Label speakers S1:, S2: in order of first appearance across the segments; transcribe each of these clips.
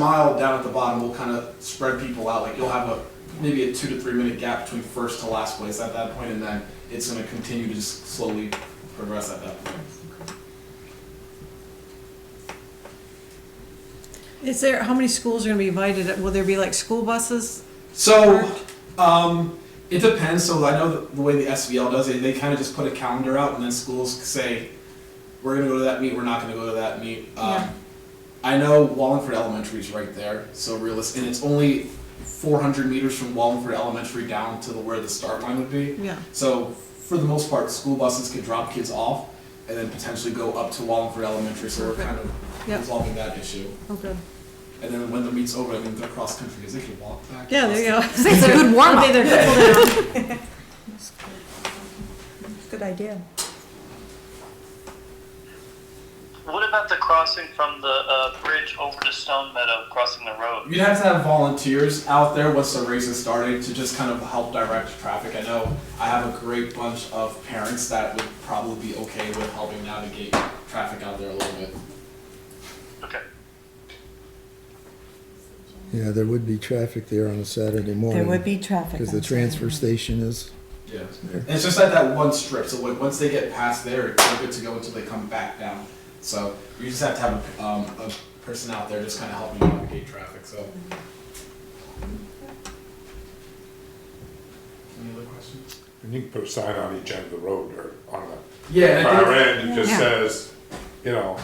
S1: mile down at the bottom, we'll kind of spread people out. Like you'll have a maybe a two to three minute gap between first to last place at that point, and then it's going to continue to just slowly progress at that point.
S2: Is there, how many schools are gonna be invited? Will there be like school buses?
S1: So, um, it depends. So I know that the way the SVL does it, they kind of just put a calendar out, and then schools say, "We're going to go to that meet. We're not going to go to that meet." Um,
S2: Yeah.
S1: I know Wallingford Elementary is right there, so realistic, and it's only 400 meters from Wallingford Elementary down to the, where the start line would be.
S2: Yeah,
S1: So for the most part, school buses could drop kids off and then potentially go up to Wallingford Elementary, so we're kind of
S2: Yep.
S1: resolving that issue.
S2: okay.
S1: And then when the meet's over, I mean, they're cross-country, because they can walk back.
S2: Yeah, there you go.
S3: It's a good warm-up.
S2: Okay, they're coupled down.
S3: Good idea.
S4: What about the crossing from the uh, bridge over to Stone Meadow, crossing the road?
S1: You'd have to have volunteers out there once the race is started to just kind of help direct traffic. I know I have a great bunch of parents that would probably be okay with helping navigate traffic out there a little bit.
S4: Okay.
S5: Yeah, there would be traffic there on a Saturday morning.
S3: There would be traffic.
S5: Because the
S3: on
S5: transfer
S3: Saturday.
S5: station is,
S1: Yeah. And it's just at that one strip, so like, once they get past there, they're good to go until they come back down. So you just have to have a, um, a person out there just kind of helping navigate traffic, so. Any other questions?
S6: And you can put a sign on each end of the road or on the
S1: Yeah, and I
S6: far
S1: think-
S6: end, it just
S3: Yeah.
S6: says, you know,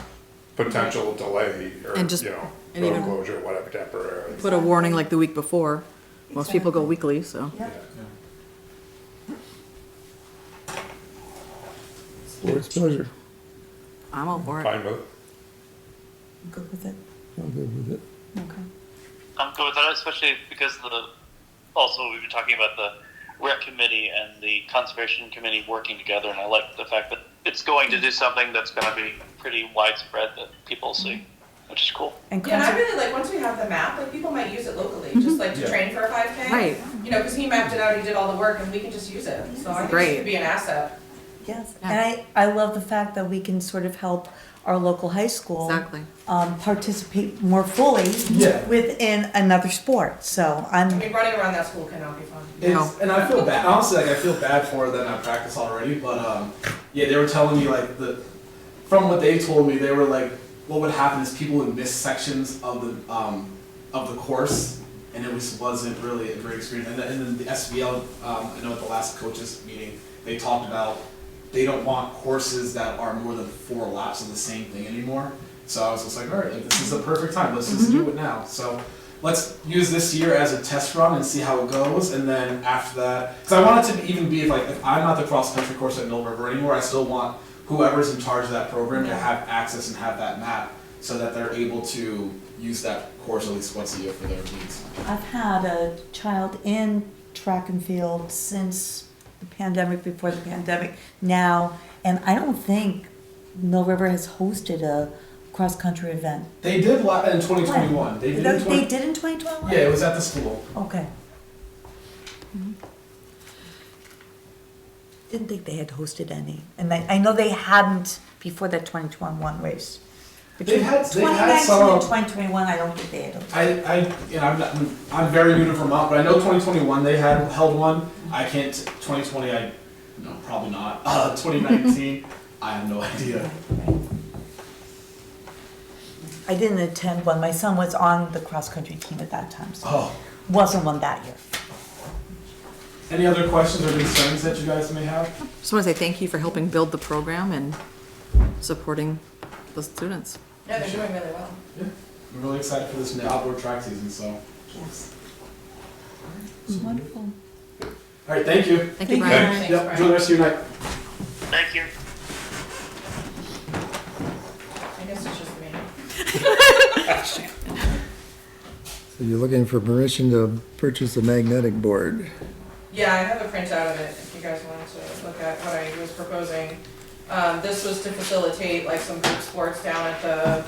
S6: potential delay or,
S7: And just-
S6: you know,
S7: and
S6: road
S7: even-
S6: closure, whatever temporary.
S7: Put a warning like the week before. Most people go weekly, so.
S3: Yeah.
S5: board's pleasure.
S7: I'm all for it.
S6: Fine with it.
S3: Good with it,
S5: I'm good with it.
S3: okay.
S4: I'm good with that, especially because the also we've been talking about the rec committee and the conservation committee working together, and I like the fact that it's going to do something that's going to be pretty widespread that people see, which is cool.
S3: And
S8: Yeah, and I
S3: concert-
S8: really like once we have the map, like people might use it locally, just like to
S1: Yeah.
S8: train for a 5K.
S7: Right.
S8: You know, because he mapped it out, he did all the work, and we can just use it. So I think it
S7: Great.
S8: should be an asset.
S3: yes, and I, I love the fact that we can sort of help our local high school.
S7: Exactly.
S3: Um, participate more fully.
S1: Yeah.
S3: Within another sport, so
S8: I
S3: I'm,
S8: mean, running around that school cannot be fun.
S1: It's, and I feel bad. Honestly, like I feel bad for her that I practice already. But um, yeah, they were telling me like the from what they told me, they were like, what would happen is people would miss sections of the um, of the course, and it was wasn't really a great experience. And, then- and then the SBL, um, I know at the last coaches meeting, they talked about they don't want courses that are more than four laps of the same thing anymore. So I was just like, all right, like, this is the perfect time. Let's just do it now. So let's use this year as a test run and see how it goes, and then after that, because I want it to even be if, like if I'm not the cross country course at Mill River anymore, I still want whoever's in charge of that program to have access and have that map so that they're able to use that course at least once a year for their needs.
S3: I've had a child in track and field since the pandemic, before the pandemic, now. And I don't think Mill River has hosted a cross-country event.
S1: They did la- in 2021. They did.
S3: They
S1: in 20-
S3: did in twenty twenty-one?
S1: yeah, it was at the school.
S3: Okay. Mm-hmm. Didn't think they had hosted any, and I, I know they hadn't before that twenty twenty-one race.
S1: They had- they had some-
S3: Twenty nineteen and twenty twenty-one, I don't think they had. hosted.
S1: I, I, you know, I'm, not, I'm- I'm very new to Vermont, but I know 2021 they had held one. I can't. 2020, I no, probably not. Uh, 2019, I have no idea.
S3: I didn't attend one, my son was on the cross-country team at that time, so
S1: Oh,
S3: wasn't one that year.
S1: any other questions or concerns that you guys may have?
S7: Just want to say thank you for helping build the program and supporting the students.
S8: Yeah, they're doing really well.
S1: Yeah, I'm really excited for this new outdoor track season. So,
S3: Yes. Wonderful.
S1: all right, thank you.
S7: Thank you,
S3: Thank
S7: Brian.
S8: Thanks,
S1: Yep,
S8: Brian.
S1: enjoy the rest of your night.
S4: Thank you.
S8: I guess it's just me.
S5: So you're looking for permission to purchase a magnetic board.
S8: Yeah, I have a printout of it if you guys wanted to look at what I was proposing. Um, this was to facilitate like some group sports down at the,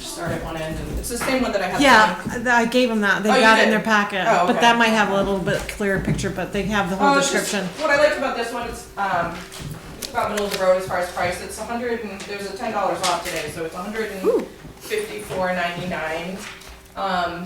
S8: start at one end, and it's the same one that I have.
S2: Yeah, th- I gave them that. They
S8: Oh, you
S2: got it in
S8: did?
S2: their packet.
S8: Oh,
S2: But
S8: okay.
S2: that might have a little bit clearer picture, but they have the whole
S8: Oh, it's just-
S2: description.
S8: What I liked about this one, it's, um, it's about middle of the road as far as price, it's a hundred and, there's a ten dollars off today, so it's a hundred and fifty-four ninety-nine. Um,